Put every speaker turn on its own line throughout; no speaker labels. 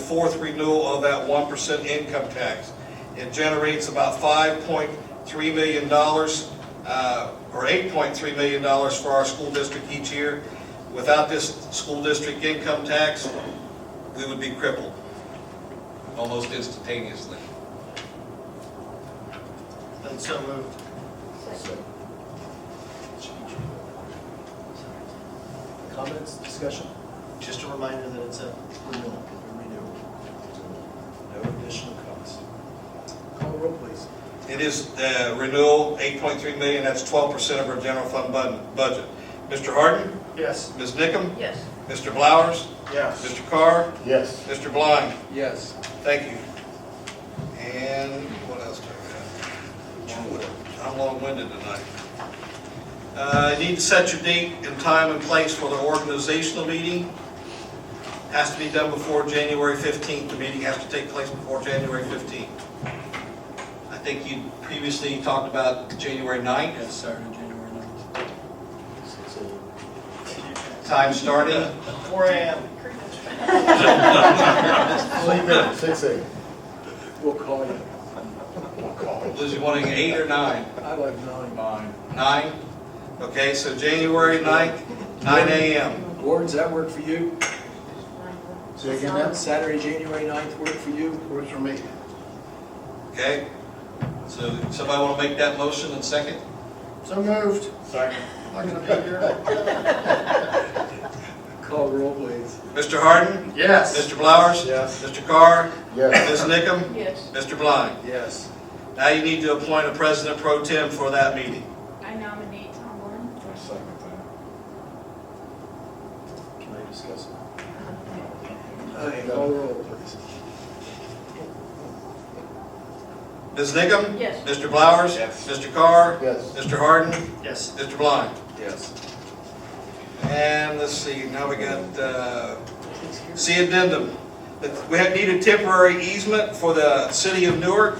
fourth renewal of that one percent income tax. It generates about five point three million dollars, uh, or eight point three million dollars for our school district each year. Without this school district income tax, we would be crippled almost instantaneously.
And so moved. Comments, discussion? Just a reminder that it's a renewal, a renewal. No additional cost. Call roll, please.
It is uh, renewal, 8.3 million, that's 12% of our general fund bud- budget. Mr. Harden,
Yes.
Ms. Nickam,
Yes.
Mr. Blowers,
Yes.
Mr. Carr,
Yes.
Mr. Blind,
Yes.
thank you. And what else do I have? I'm long-winded tonight. Uh, You need to set your date and time and place for the organizational meeting. Has to be done before January 15th, the meeting has to take place before January 15th. I think you previously talked about January 9th.
Yes, Saturday, January 9th.
Time starting,
Four AM.
Six eight.
We'll call you.
was you wanting eight or nine?
I like nine. Nine.
Nine? Okay, so January 9th, nine AM.
Gordon, does that work for you?
Say again, Matt?
Saturday, January 9th, work for you?
Works for me.
Okay? So somebody want to make that motion and second?
So moved. Second.
Not gonna be here.
Call roll, please.
Mr. Harden?
Yes.
Mr. Blowers?
Yes.
Mr. Carr?
Yes.
Ms. Nickam?
Yes.
Mr. Blind?
Yes.
Now you need to appoint a president pro tem for that meeting.
I nominate Tom Warren.
Can I discuss? it?
Okay, call roll, please.
Ms. Nickam?
Yes.
Mr. Blowers?
Yes.
Mr. Carr?
Yes.
Mr. Harden?
Yes.
Mr. Blind?
Yes.
And let's see, now we got, uh, see addendum. That We have needed temporary easement for the city of Newark.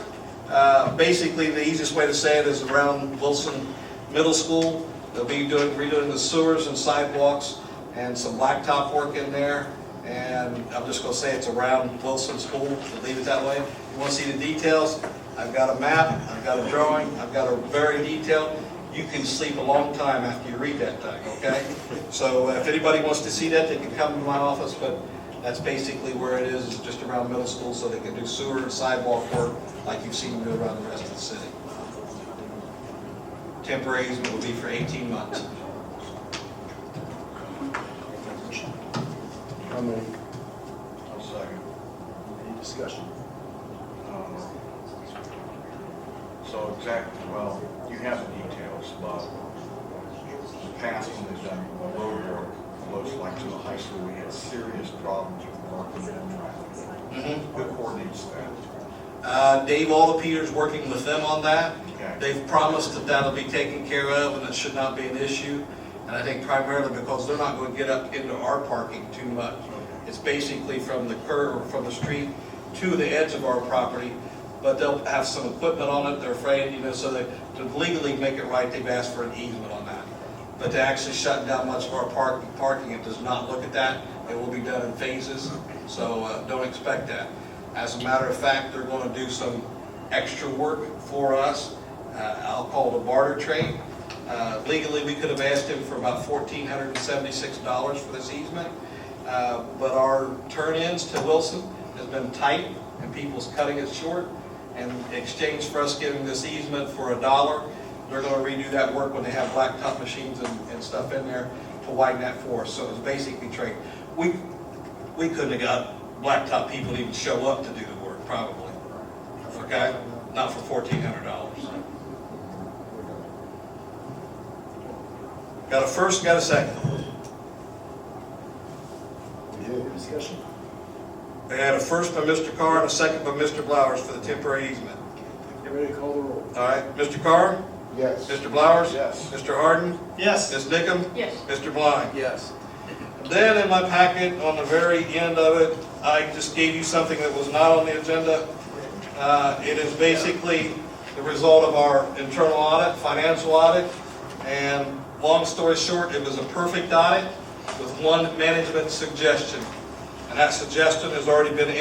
Uh, Basically, the easiest way to say it is around Wilson Middle School. They'll be doing, redoing the sewers and sidewalks and some blacktop work in there. And I'm just gonna say it's around Wilson School, We'll leave it that way. You wanna see the details? I've got a map, I've got a drawing, I've got a very detailed. You can sleep a long time after you read that thing, okay? So uh, if anybody wants to see that, they can come to my office, but that's basically where it is, is just around middle school, so they can do sewer and sidewalk work like you've seen them do around the rest of the city. Temporary easement will be for 18 months.
How many?
Any discussion?
Um, So exactly, well, you have the details, but the past when they've done road work, looks like to the high school, we had serious problems with parking and traffic. Who coordinates that?
Uh, Dave Alderpeter's working with them on that.
Okay.
They've promised that that'll be taken care of and it should not be an issue. And I think primarily because they're not going to get up into our parking too much. It's basically from the curb, from the street to the edge of our property. But they'll have some equipment on it, they're afraid, you know, so that to legally make it right, they've asked for an easement on that. But to actually shut down much of our park, parking, it does not look at that. It will be done in phases, so uh, don't expect that. As a matter of fact, they're going to do some extra work for us. Uh, I'll call it a barter trade. Uh, Legally, we could have asked him for about fourteen hundred and seventy-six dollars for this easement. Uh, But our turn-ins to Wilson has been tight and people's cutting it short. And in exchange for us giving this easement for a dollar, they're gonna redo that work when they have blacktop machines and, and stuff in there to widen that for us. So it's basically trade. We, we couldn't have got blacktop people to even show up to do the work, probably. Okay? Not for fourteen hundred dollars. Got a first, got a second.
Any discussion?
They had a first by Mr. Carr and a second by Mr. Blowers for the temporary easement.
Everybody call the roll.
All right, Mr. Carr,
Yes.
Mr. Blowers?
Yes.
Mr. Harden?
Yes.
Ms. Nickam?
Yes.
Mr. Blind?
Yes.
Then in my packet, on the very end of it, I just gave you something that was not on the agenda. Uh, It is basically the result of our internal audit, financial audit, and long story short, it was a perfect audit with one management suggestion. And that suggestion has already been